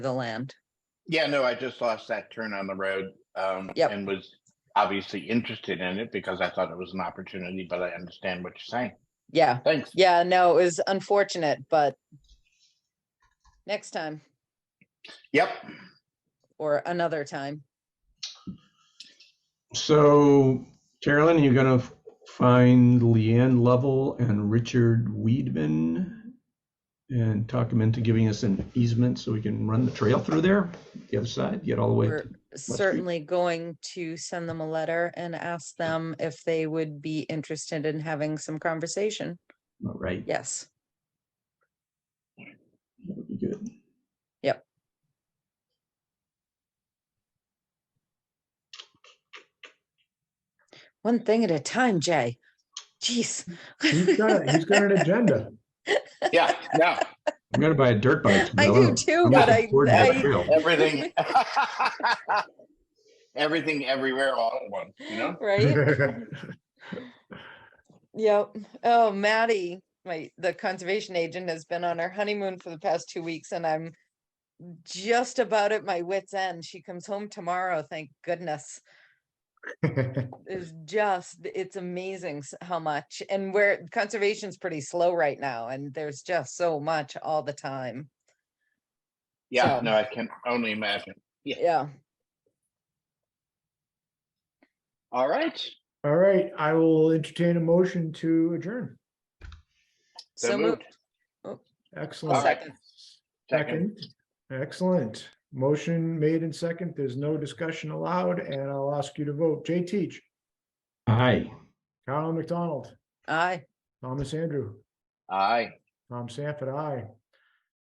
the land. Yeah, no, I just lost that turn on the road. Um, Yep. and was obviously interested in it because I thought it was an opportunity, but I understand what you're saying. Yeah, Thanks. yeah, no, it was unfortunate, but next time Yep. or another time. So Carolyn, you're gonna f- find Leanne Lovell and Richard Weedman and talk them into giving us an easement so we can run the trail through there, the other side, get all the way. We're to- certainly going to send them a letter and ask them if they would be interested in having some conversation. all Right, Yes, that would be good. Yep. one thing at a time, Jay. Jeez. He's got, a- he's got an agenda. Yeah, yeah, I'm gonna buy a dirt bike. I do Bill. too, I'm but looking I, forward to that I- trail. everything. Everything everywhere all at once, you know? right? Yep. Oh, Maddie, my, the conservation agent has been on her honeymoon for the past two weeks and I'm just about at my wit's end. She comes home tomorrow, thank goodness. It's just, it's amazing s- how much and where conservation's pretty slow right now and there's just so much all the time. Yeah, So- no, I can only imagine. Yeah. All right. All right, I will entertain a motion to adjourn. So moved. moved. All Excellent. right. Second. Second. Second. Excellent. Motion made and second. There's no discussion allowed, and I'll ask you to vote. Jay Teach, Aye. Carolyn McDonald, Aye. Thomas Andrew, Aye. Tom Sanford, aye.